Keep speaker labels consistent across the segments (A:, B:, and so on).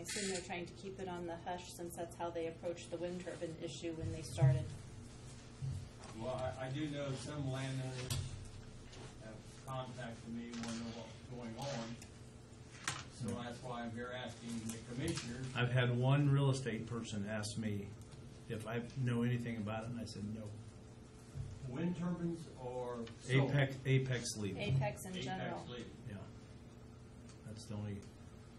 A: assume they're trying to keep it on the hush since that's how they approached the wind turbine issue when they started.
B: Well, I, I do know some landowners have contacted me, want to know what's going on. So that's why I'm here asking the commissioners.
C: I've had one real estate person ask me if I know anything about it, and I said no.
B: wind turbines or solar?
C: Apex, Apex legal.
A: Apex in
B: Apex
A: general.
B: lead.
C: Yeah, that's the only.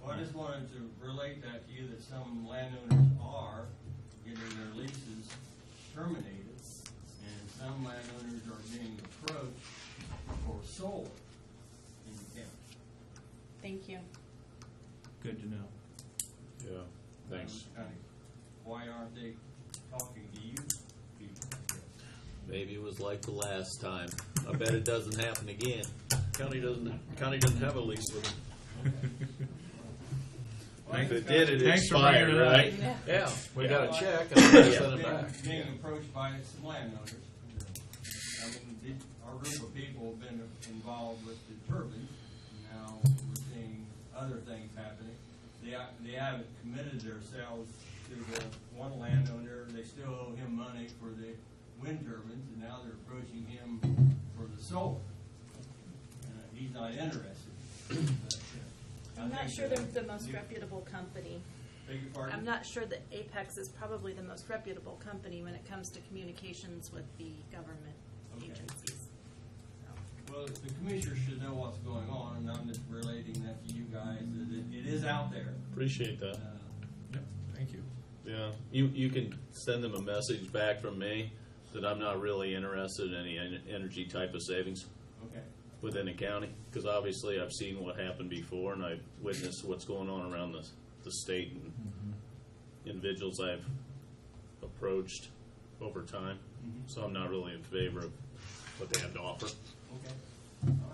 B: Well, I just wanted to relate that to you, that some landowners are getting their leases terminated, and some landowners are being approached for solar in the county.
A: Thank you.
C: Good to know.
D: Yeah, thanks.
B: Kind of, Why aren't they talking to you people?
D: Maybe it was like the last time. I bet it doesn't happen again. County doesn't, county doesn't have a lease with them. If it did, it
C: Thanks for
D: expired,
C: bringing it up.
D: right?
A: Yeah.
D: Yeah, we got
B: Yeah.
D: a check and we sent it
B: Being-
D: back.
B: Being approached by some landowners. I mean, the- our group of people have been involved with the turbines, and now we're seeing other things happening. They, ha- they haven't committed themselves to the one landowner, they still owe him money for the wind turbines, and now they're approaching him for the solar. Uh, He's not interested. But, uh, I
A: I'm not
B: think
A: sure
B: that-
A: they're the most
B: you-
A: reputable company.
B: Beg your pardon?
A: I'm not sure that Apex is probably the most reputable company when it comes to communications with the government
B: Okay.
A: agencies.
B: Well, the commissioners should know what's going on, and I'm just relating that to you guys, that it, it is out there.
D: Appreciate
B: Uh,
D: that.
C: Yep, thank you.
D: Yeah, you, you can send them a message back from me that I'm not really interested in any en- energy type of savings
B: Okay,
D: within the county. Because obviously I've seen what happened before and I've witnessed what's going on around the, the state and individuals I've approached over time.
B: Mhm.
D: So I'm not really in favor of what they have to offer.
B: okay, all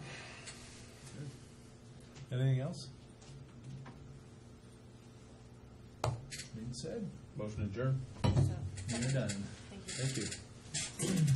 B: right.
C: Anything else? Being said,
D: Motion adjourned.
A: So,
C: you're done.
A: thank you.
C: Thank you.